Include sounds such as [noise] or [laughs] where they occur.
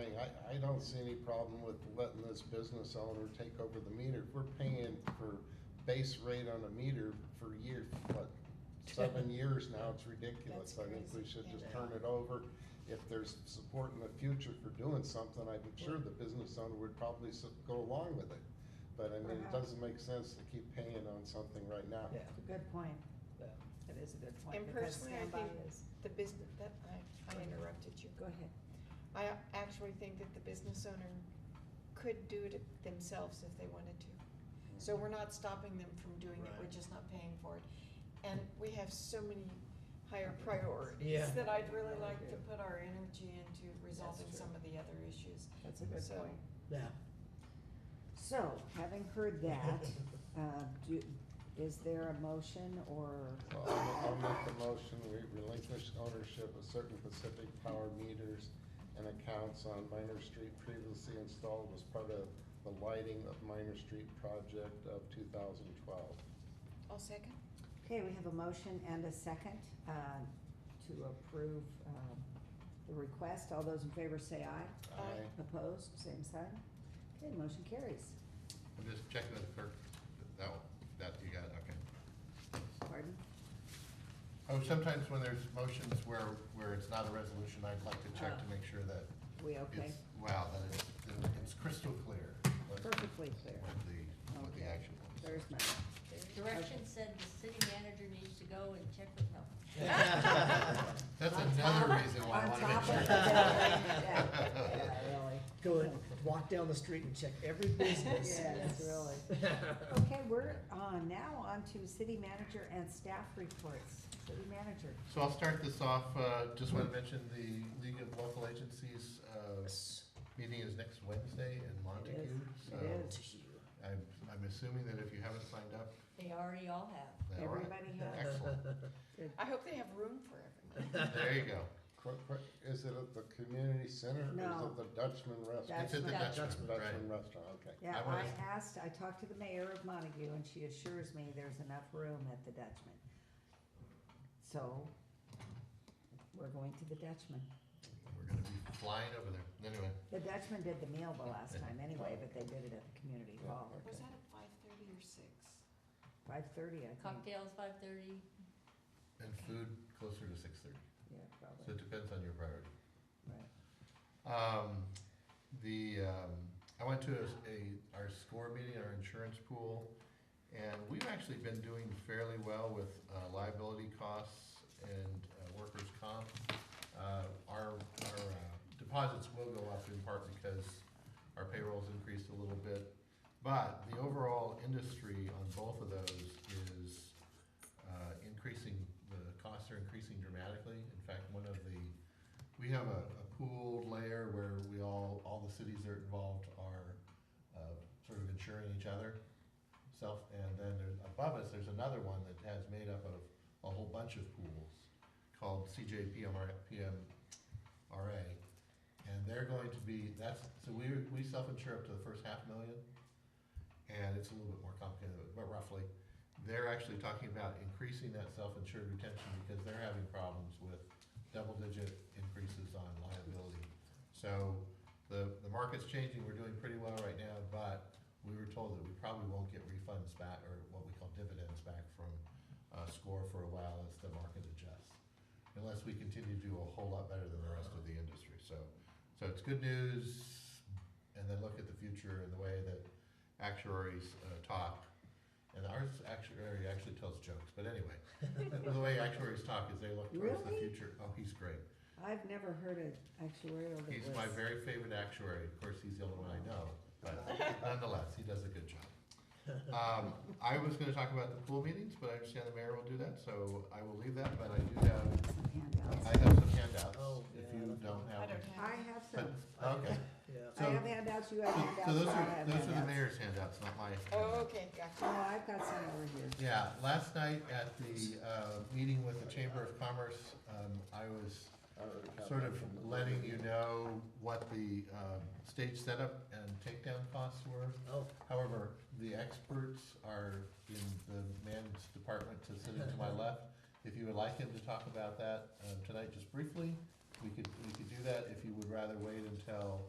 I, I don't see any problem with letting this business owner take over the meter. If We're paying for base rate on a meter for years, what, [laughs] seven years now, it's ridiculous. That's I think we crazy, should just yeah. turn it over. If there's support in the future for doing something, I'm sure the business owner would probably s- go along with it. But I mean, it Perhaps. doesn't make sense to keep paying on something right now. Yeah, It's a good point. yeah. It is a good point. And because personally, I standby think is- the business, that, I, I interrupted you, Go ahead. I actually think that the business owner could do it themselves if they wanted to. Mm-hmm. So we're not stopping them from doing it, we're Right. just not paying for it. And we have so many higher priorities Yeah. that I'd really like to Yeah. put our energy into resolving true. some of the other issues. That's a good So- point. Yeah. So, having heard that, [laughs] uh, do, is there a motion or? Well, I'll I'll make the motion, we relinquish ownership of certain Pacific Power meters and accounts on Minor Street previously installed as part of the lighting of Minor Street project of two thousand twelve. I'll second. Okay, we have a motion and a second uh, to approve um, the request. All those in favor say aye. Aye. Opposed, same sign. Okay, motion carries. I'm just checking with clerk, that, that, you got, it, okay. Pardon? Oh, sometimes when there's motions where, where it's not a resolution, I'd like to check to make sure that We it's, okay? wow, that it's, that it's crystal clear. what- Perfectly clear. What the, what the Okay. action was. There's my, The direction said the city manager needs to go and check with them. [laughs] That's another reason why I on want to top make [laughs] sure. of the Yeah, yeah, really. [laughs] Go and walk down the street and check every business. [laughs] Yes, really. [laughs] Okay, we're uh, now on to city manager and staff reports. City manager. So I'll start this off, uh, just want to mention the League of Local Agencies, uh, meeting is next Wednesday in is. Montague. So It is. I'm, I'm assuming that if you haven't signed up, They already all have. all [laughs] right. Everybody has. Excellent, I hope they have room for everyone. [laughs] there you go. Quick, quick, is it at the community center or is No. it the Dutchman restaurant? It's at the Dutchman. Dutchman, right? Dutchman restaurant, okay. Yeah, I I was- asked, I talked to the mayor of Montague and she assures me there's enough room at the Dutchman. So, we're going to the Dutchman. We're gonna be flying over there. Anyway, The Dutchman did the meal the last time anyway, but they did it at the community hall. Was that at five thirty or six? Five thirty, I think. Cocktails, five thirty, and food closer to six thirty, Yeah, so probably, it depends on your priority. right. Um, the, um, I went to a, a- our score meeting, our insurance pool, and we've actually been doing fairly well with uh, liability costs and uh, workers' comp. Uh, our, our uh, deposits will go up in part because our payroll's increased a little bit. But the overall industry on both of those is, uh, increasing, the costs are increasing dramatically. In fact, one of the, we have a, a pooled layer where we all, all the cities that are involved are, uh, sort of insuring each other. Self, and then there's, above us, there's another one that has made up of a whole bunch of pools called CJPMR, PMRA. And they're going to be, that's, so we, we self-insure up to the first half million. And it's a little bit more complicated, but roughly, they're actually talking about increasing that self-insured retention because they're having problems with double-digit increases on liability. So the, the market's changing, we're doing pretty well right now, but we were told that we probably won't get refunds back, or what we call dividends back from, uh, SCORE for a while as the market adjusts. Unless we continue to do a whole lot better than the rest of the industry, so, so it's good news. And then look at the future and the way that actuaries, uh, talk. And ours actuary actually tells jokes, but anyway, the way actuaries talk is they look towards the Really? future. Oh, he's great. I've never heard an actuarial that was. He's my very favorite actuary. Of course, he's the only one I know, [laughs] but nonetheless, he does a good job. Um, I was gonna talk about the pool meetings, but I understand the mayor will do that, so I will leave that, but I do have, some handouts. I have some handouts, Oh, if yeah, you that's- don't I have them. don't have. I any. have But, some. okay, Yeah. I so- have handouts, you have so, handouts, so those I'll are, have those are the handouts. mayor's handouts, not my. Oh, handouts. okay, Oh, gotcha. I've got some over here. Yeah, last night at the, uh, meeting with the Chamber of Commerce, um, I was I already have sort that of from the- letting you know what the, um, stage setup and takedown costs were. Oh, However, the experts are in the man's department to sitting to my left. If you would like him to talk uh, about that, um, tonight just briefly, we could, we could do that. If you would rather wait until